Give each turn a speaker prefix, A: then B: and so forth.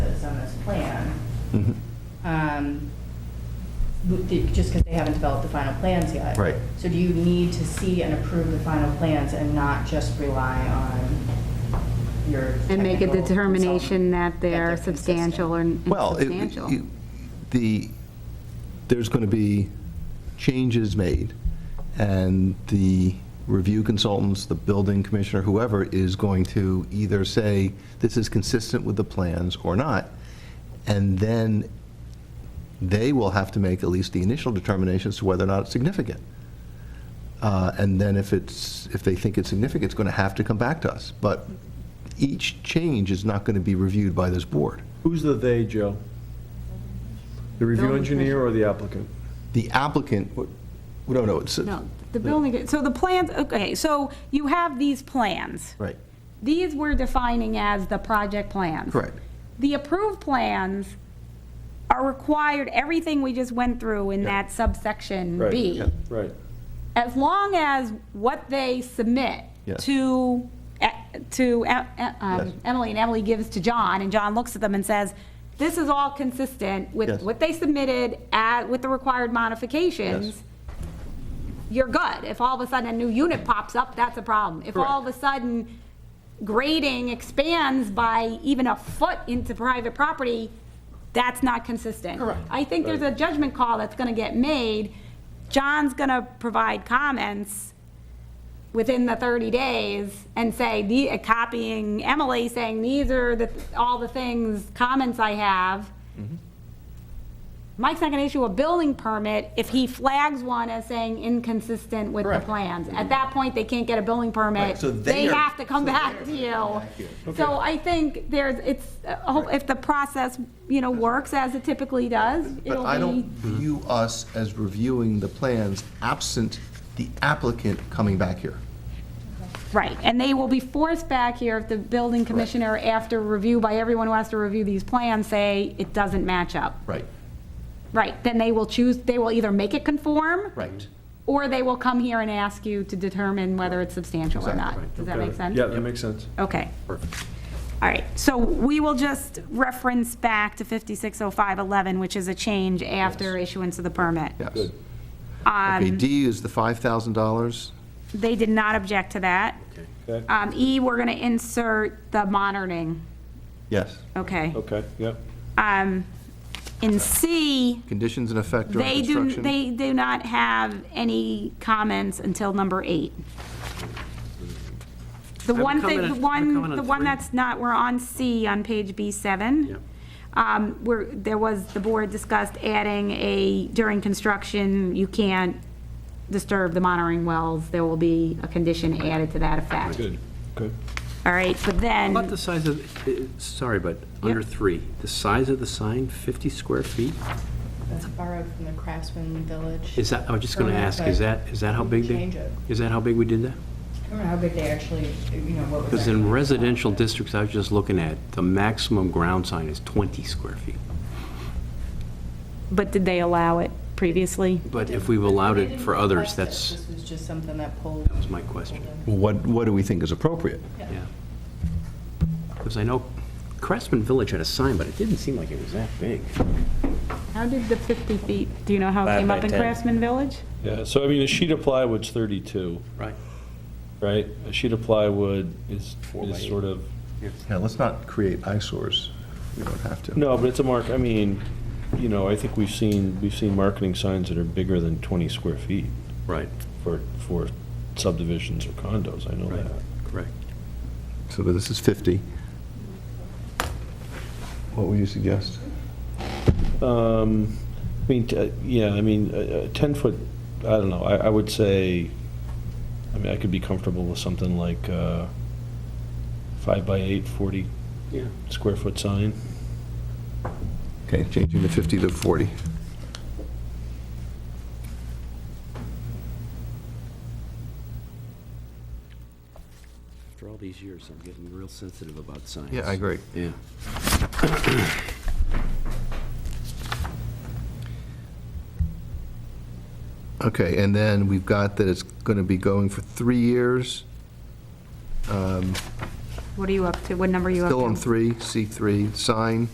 A: um, with the- just because they haven't developed the final plans yet.
B: Right.
A: So do you need to see and approve the final plans and not just rely on your
C: And make a
A: technical consultant
C: determination that they're
A: consistent?
C: substantial or
B: Well, it- it-
C: insubstantial.
B: the, there's going to be changes made, and the review consultants, the building commissioner, whoever, is going to either say, this is consistent with the plans or not, and then they will have to make at least the initial determination as to whether or not it's significant. Uh, And then if it's, if they think it's significant, it's going to have to come back to us. But each change is not going to be reviewed by this board.
D: Who's the "they," Joe? The review
C: Building
D: engineer or the applicant?
B: the applicant, would- no, no, it's,
C: No, the building, so the plans, okay, so you have these plans.
B: right,
C: These we're defining as the project plans.
B: Correct.
C: The approved plans are required, everything we just went through in that subsection
D: Right,
C: B.
D: Right.
C: As long as what they submit
B: Yes.
C: to, to uh, uh,
B: Yes.
C: um, Emily, and Emily gives to John, and John looks at them and says, this is all consistent
B: Yes.
C: with what they submitted at, with the required modifications, you're good. If all of a sudden a new unit pops up, that's a problem. If all of a sudden grading expands by even a foot into private property, that's not consistent. Correct. I think there's a judgment call that's gonna get made. John's gonna provide comments within the 30 days and say, the, uh, copying Emily, saying, these are the, all the things, comments I have.
B: Mm-hmm.
C: Mike's not gonna issue a building permit if he flags one as saying inconsistent with the
B: Correct.
C: plans. At that point, they can't get a building permit.
B: Right, so
C: They
B: they're-
C: have to come
B: so
C: back to you. So I think there's, it's, uh, hope- if the process, you know, works as it typically does,
B: but
C: it'll
B: I don't
C: be,
B: view us as reviewing the plans absent the applicant coming back here.
C: right. And they will be forced back here if the building commissioner, after review by everyone who has to review these plans, say it doesn't match up.
B: Right,
C: Right, then they will choose, they will either make it conform.
B: right.
C: Or they will come here and ask you to determine whether it's substantial or
B: Exactly.
C: not. Does that make sense?
D: Yeah, that makes sense.
C: Okay. All right, so we will just reference back to 560511, which is a change after issuance of the permit.
B: Yes.
C: Um,
B: Okay, D is the $5,000.
C: They did not object to that.
D: Okay,
C: Um, E, we're going to insert the monitoring,
B: Yes.
C: okay.
D: okay, yeah.
C: Um, In C,
B: Conditions in effect during
C: they do,
B: construction.
C: they do not have any comments until number eight. The
E: have a
C: one thing,
E: comment
C: the
E: on- I have a
C: one,
E: comment
C: the
E: on
C: one
E: three.
C: that's not, we're on C on page B7.
E: Yep.
C: Um, Where, there was, the board discussed adding a, during construction, you can't disturb the monitoring wells. There will be a condition added to that effect.
D: Good, good.
C: All right, but then.
E: About the size of, eh, eh, sorry, but under three, the size of the sign, 50 square feet?
A: That's borrowed from the Craftsman Village.
E: Is that, I was just going to
A: Permit,
E: ask,
A: Uh, but
E: is that, is that how big they?
A: Change it.
E: Is that how big we did that?
A: I don't know how big they actually, you know, what was.
E: Because
A: actually-
E: in residential districts I was just looking at, the maximum ground sign is 20 square feet.
C: But did they allow it previously?
E: But if we've allowed it for others, that's,
A: This was just something that pulled.
E: that was my question,
B: What, what do we think is appropriate?
E: yeah. Because I know Craftsman Village had a sign, but it didn't seem like it was that big.
C: How did the 50 feet, do you know how it
F: Five
C: came
F: by
C: up in
F: 10.
C: Craftsman Village?
D: Yeah, so I mean, a sheet of plywood's 32,
E: Right.
D: right? A sheet of plywood is,
E: by
D: is
E: eight.
D: sort of,
B: Yeah, let's not create eyesores. We don't have to.
D: no, but it's a mark, I mean, you know, I think we've seen, we've seen marketing signs that are bigger than 20 square feet
E: Right,
D: for, for subdivisions or condos, I know
E: right,
D: that.
E: correct.
B: So this is 50. What would you suggest?
D: Um, I mean, t- uh, yeah, I mean, a 10-foot, I don't know, I, I would say, I mean, I could be comfortable with something like uh, five by eight, 40
E: Yeah.
D: square foot sign.
B: Okay, changing the 50 to 40.
E: After all these years, I'm getting real sensitive about signs.
B: Yeah, I agree.
E: Yeah.
B: Okay, and then we've got that it's going to be going for three years,
C: What are you up to, what number are you up to?
B: still on three, C3, sign,